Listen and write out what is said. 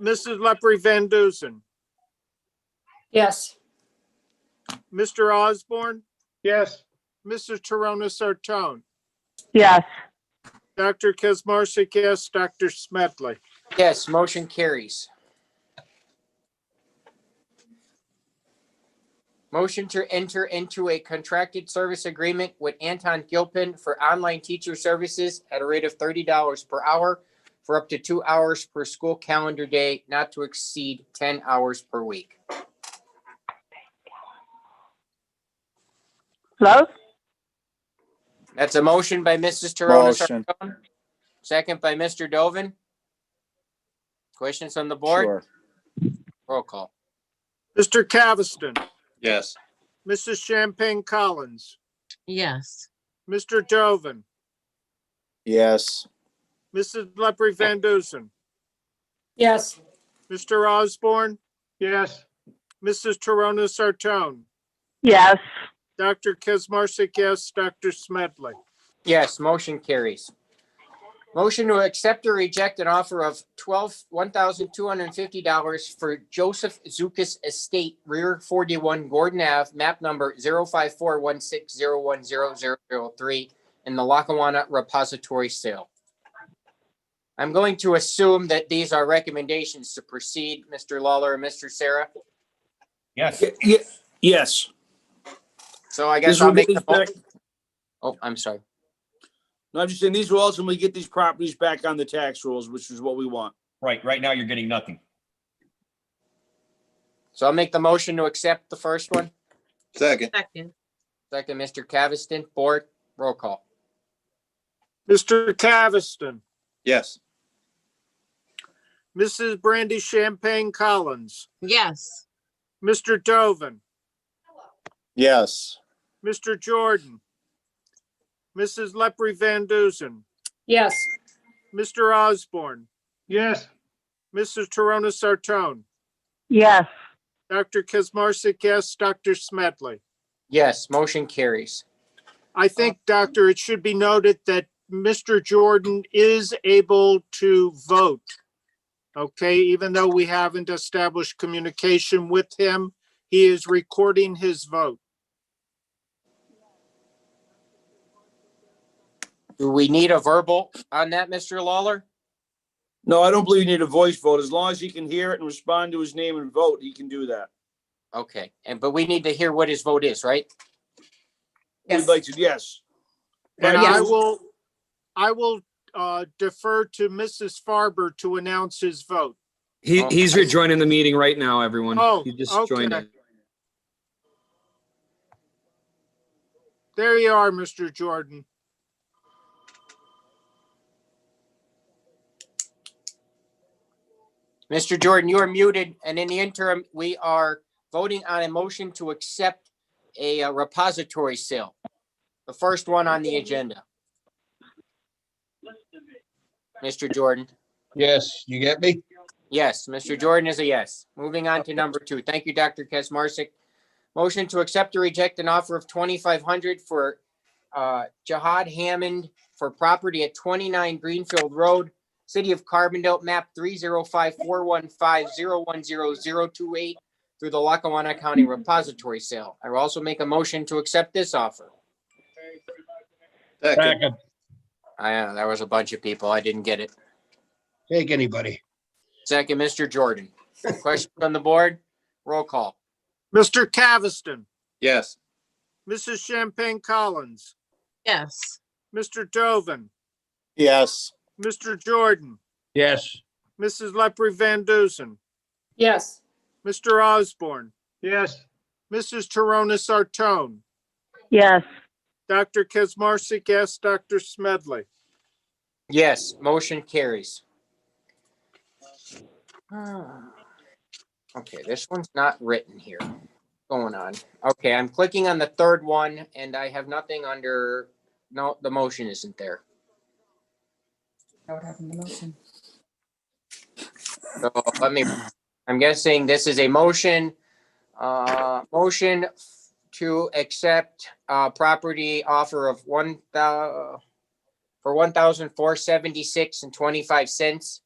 Mrs. Leprey Van Dusen, Yes. Mr. Osborne, Yes. Mrs. Torona Sartone, yes, Dr. Kesmarsik, yes, Dr. Smedley. Yes, motion carries. Motion to enter into a contracted service agreement with Anton Gilpin for online teacher services at a rate of thirty dollars per hour for up to two hours per school calendar day, not to exceed ten hours per week. Lois? That's a motion by Mrs. Torona Motion, Saracone, second by Mr. Dovin. Questions on the board? sure. Roll call. Mr. Caviston, Yes. Mrs. Champagne Collins, yes, Mr. Dovin, Yes, Mrs. Leprey Van Dusen, Yes. Mr. Osborne, Yes. Mrs. Torona Sartone, Yes, Dr. Kesmarsik, yes, Dr. Smedley. Yes, motion carries. Motion to accept or reject an offer of twelve, one thousand two hundred and fifty dollars for Joseph Zukas Estate, rear forty-one Gordon Ave, map number zero five four one six zero one zero zero zero three in the Lackawanna Repository Sale. I'm going to assume that these are recommendations to proceed, Mr. Lawler and Mr. Sarah. Yes. Ye- ye- Yes. So I This guess I'll will make get the, us mo- back- oh, I'm sorry. No, I'm just saying, these will ultimately get these properties back on the tax rolls, which is what we want. Right, right now you're getting nothing. So I'll make the motion to accept the first one. Second. second, Second, Mr. Caviston, board, roll call. Mr. Caviston, Yes. Mrs. Brandy Champagne Collins, yes, Mr. Dovin, yes, Mr. Jordan, Mrs. Leprey Van Dusen, Yes. Mr. Osborne, Yes. Mrs. Torona Sartone, yes, Dr. Kesmarsik, yes, Dr. Smedley. Yes, motion carries. I think, Doctor, it should be noted that Mr. Jordan is able to vote. Okay, even though we haven't established communication with him, he is recording his vote. Do we need a verbal on that, Mr. Lawler? No, I don't believe you need a voice vote. As long as he can hear it and respond to his name and vote, he can do that. Okay, and but we need to hear what his vote is, right? We'd like to, yes. And Right, I yes. will, I will uh, defer to Mrs. Farber to announce his vote. He, Oh, he's I- rejoining the meeting right now, everyone. Oh, He just joined okay. it. There you are, Mr. Jordan. Mr. Jordan, you are muted, and in the interim, we are voting on a motion to accept a uh, repository sale. The first one on the agenda. Mr. Jordan, Yes. You get me? yes, Mr. Jordan is a yes. Moving on to number two. Thank you, Dr. Kesmarsik. Motion to accept or reject an offer of twenty-five hundred for uh, Jihad Hammond for property at twenty-nine Greenfield Road, City of Carbondale, map three zero five four one five zero one zero zero two eight through the Lackawanna County Repository Sale. I will also make a motion to accept this offer. Second. I, uh, there was a bunch of people. I didn't get it. Take anybody. Second, Mr. Jordan. Questions on the board? Roll call. Mr. Caviston, Yes. Mrs. Champagne Collins, yes, Mr. Dovin, yes, Mr. Jordan, Yes. Mrs. Leprey Van Dusen, Yes. Mr. Osborne, Yes. Mrs. Torona Sartone, yes, Dr. Kesmarsik, yes, Dr. Smedley. Yes, motion carries. Okay, this one's not written here. Going on. Okay, I'm clicking on the third one and I have nothing under, no, the motion isn't there. What happened to the motion? So let me, I'm guessing this is a motion, uh, motion to accept, uh, property offer of one thou, for one thousand four seventy-six and twenty-five cents